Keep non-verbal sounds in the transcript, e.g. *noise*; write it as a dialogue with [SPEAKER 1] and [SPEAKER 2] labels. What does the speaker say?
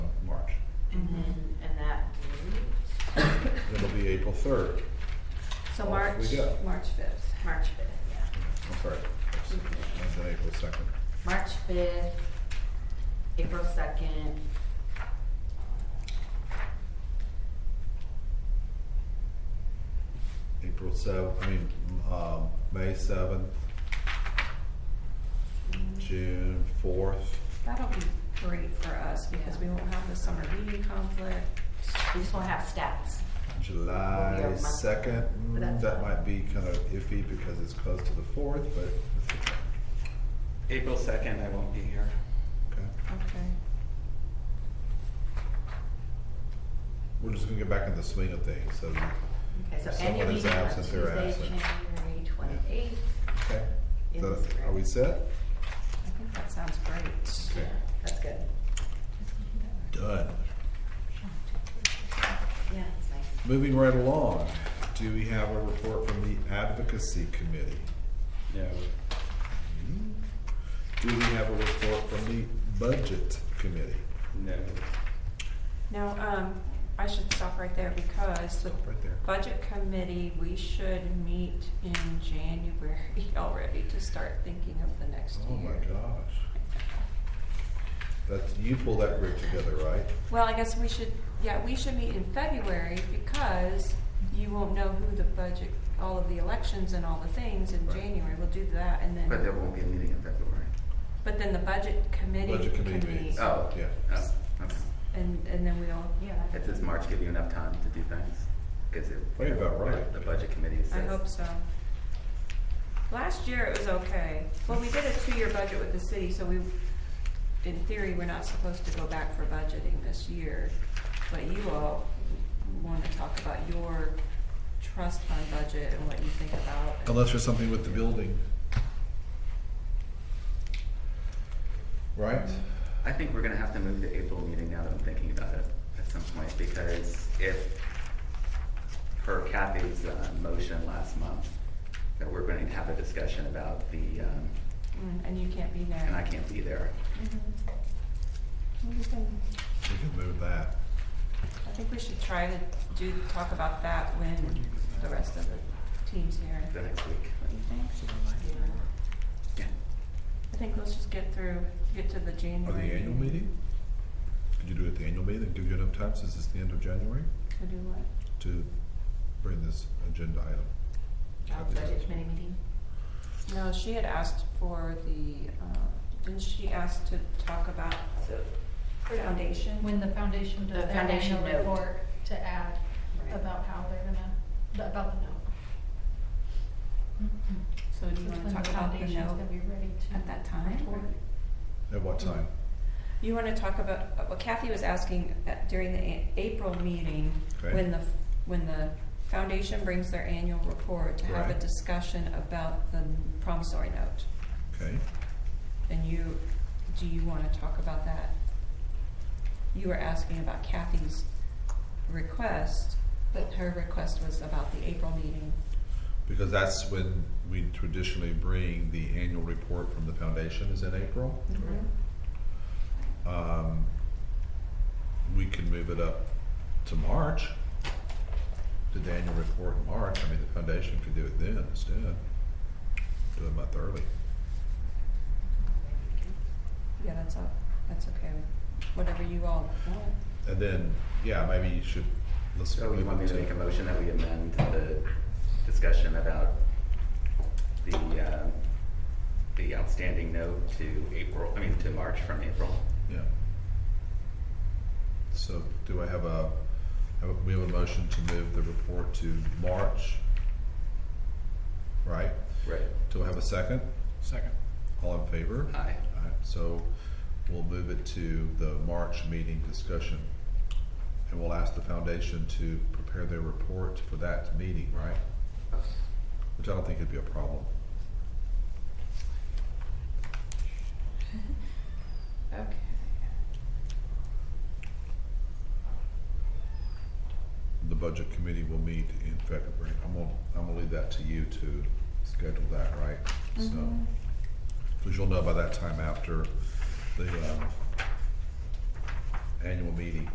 [SPEAKER 1] And then, and that moved
[SPEAKER 2] It'll be April third.
[SPEAKER 3] So
[SPEAKER 2] Off
[SPEAKER 3] March,
[SPEAKER 2] we go.
[SPEAKER 3] March fifth.
[SPEAKER 1] March fifth, yeah.
[SPEAKER 2] I'm sorry. That's- That's on April second.
[SPEAKER 1] March fifth, April second.
[SPEAKER 2] April seventh, I mean, um, May seventh, June fourth.
[SPEAKER 3] That'll be great for us because we won't have the summer meeting conflict.
[SPEAKER 1] We just won't have stats. Yeah,
[SPEAKER 2] July
[SPEAKER 1] my-
[SPEAKER 2] second,
[SPEAKER 1] But that's
[SPEAKER 2] that
[SPEAKER 1] fine.
[SPEAKER 2] might be kind of iffy because it's close to the fourth, but it's okay.
[SPEAKER 4] April second, I won't be here.
[SPEAKER 2] okay.
[SPEAKER 3] Okay.
[SPEAKER 2] We're just gonna get back in the swing of things, so,
[SPEAKER 1] Okay, so annual
[SPEAKER 2] Someone is
[SPEAKER 1] meeting on
[SPEAKER 2] absent, they're
[SPEAKER 1] Tuesday,
[SPEAKER 2] absent.
[SPEAKER 1] January twenty-eighth.
[SPEAKER 2] okay.
[SPEAKER 1] It
[SPEAKER 2] So,
[SPEAKER 1] is great.
[SPEAKER 2] Are we set?
[SPEAKER 3] I think that sounds great.
[SPEAKER 2] Okay.
[SPEAKER 1] That's good.
[SPEAKER 2] Done.
[SPEAKER 1] Yeah, it's nice.
[SPEAKER 2] Moving right along, do we have a report from the advocacy committee? Hmm?
[SPEAKER 4] No.
[SPEAKER 2] Do we have a report from the budget committee?
[SPEAKER 4] No.
[SPEAKER 3] Now, um, I should stop right there because the
[SPEAKER 2] Stop Oh, right there.
[SPEAKER 3] budget committee, we should meet in January *laughs* already to start thinking of the next year.
[SPEAKER 2] Oh my gosh. That's, you pull that group together, right?
[SPEAKER 3] Well, I guess we should, yeah, we should meet in February because you won't know who the budget, all of the elections and all the things in
[SPEAKER 2] Right.
[SPEAKER 3] January. We'll do that and then.
[SPEAKER 5] But there won't be a meeting in February.
[SPEAKER 3] But then the budget committee
[SPEAKER 2] Budget
[SPEAKER 3] can
[SPEAKER 2] committee
[SPEAKER 3] meet,
[SPEAKER 2] meets.
[SPEAKER 5] Oh.
[SPEAKER 2] Yeah.
[SPEAKER 5] Oh, okay.
[SPEAKER 3] and, and then we'll,
[SPEAKER 1] Yeah. that's
[SPEAKER 5] If does
[SPEAKER 1] good.
[SPEAKER 5] March give you enough time to do things? Because it.
[SPEAKER 2] Probably about right.
[SPEAKER 5] The budget committee says.
[SPEAKER 3] I hope so. Last year it was okay. Well, we did a two-year budget with the city, so we, in theory, we're not supposed to go back for budgeting this year. But you all wanna talk about your trust fund budget and what you think about. it.
[SPEAKER 2] Unless there's something with the building. Right?
[SPEAKER 5] I think we're gonna have to move the April meeting now that I'm thinking about it at some point, because if per Kathy's, uh, motion last month, that we're going to have a discussion about the, um,
[SPEAKER 3] Mm, And you can't be there.
[SPEAKER 5] and I can't be there.
[SPEAKER 3] We can-
[SPEAKER 2] We can move that.
[SPEAKER 3] Mm-hmm. I think we should try to do, talk about that when the rest of the team's here.
[SPEAKER 5] The next week.
[SPEAKER 3] What do you think?
[SPEAKER 5] Yeah.
[SPEAKER 3] I think let's just get through, get to the
[SPEAKER 2] Or the
[SPEAKER 3] January.
[SPEAKER 2] annual meeting? Could you do it at the annual meeting, give you enough time since it's the end of January
[SPEAKER 3] To do what?
[SPEAKER 2] to bring this agenda item?
[SPEAKER 1] Uh, Budget committee meeting.
[SPEAKER 3] No, she had asked for the, uh, didn't she ask to talk about the foundation?
[SPEAKER 6] When the foundation
[SPEAKER 1] The
[SPEAKER 6] does their
[SPEAKER 1] foundation
[SPEAKER 6] annual
[SPEAKER 1] note.
[SPEAKER 6] report to add
[SPEAKER 1] Right.
[SPEAKER 6] about how they're gonna, about the note.
[SPEAKER 3] So do Mm-hmm. you wanna
[SPEAKER 6] That's when
[SPEAKER 3] talk
[SPEAKER 6] the
[SPEAKER 3] about the
[SPEAKER 6] foundation's
[SPEAKER 3] note
[SPEAKER 6] gonna be ready to
[SPEAKER 3] at that time?
[SPEAKER 6] report.
[SPEAKER 2] At what time?
[SPEAKER 3] You wanna talk about, uh, what Kathy was asking at- during the A- April meeting,
[SPEAKER 2] Okay.
[SPEAKER 3] when the, f- when the foundation brings their annual report, to have a
[SPEAKER 2] Right.
[SPEAKER 3] discussion about the promissory note.
[SPEAKER 2] Okay,
[SPEAKER 3] And you, do you wanna talk about that? You were asking about Kathy's request, but her request was about the April meeting.
[SPEAKER 2] because that's when we traditionally bring the annual report from the foundation is in April. Um, we can move it up to March. The annual report in March, I mean, the foundation could do it then instead, do it a month early.
[SPEAKER 3] Yeah, that's up, that's okay, whatever you all want.
[SPEAKER 2] And then, yeah, maybe you should, let's.
[SPEAKER 5] So you
[SPEAKER 2] move
[SPEAKER 5] want me
[SPEAKER 2] it
[SPEAKER 5] to make a motion that we amend the discussion about the, uh, the outstanding note to April, I mean, to March from April?
[SPEAKER 2] Yeah. So do I have a, have a- we have a motion to move the report to March? Right?
[SPEAKER 5] Right.
[SPEAKER 2] Do I have a second?
[SPEAKER 4] Second.
[SPEAKER 2] All in favor?
[SPEAKER 5] Aye.
[SPEAKER 2] Alright, so we'll move it to the March meeting discussion. And we'll ask the foundation to prepare their report for that meeting, right? Which I don't think would be a problem.
[SPEAKER 3] Okay.
[SPEAKER 2] The budget committee will meet in February. I'm gonna, I'm gonna leave that to you to schedule that, right? So,
[SPEAKER 3] Mhm.
[SPEAKER 2] cause you'll know by that time after the, um, annual meeting.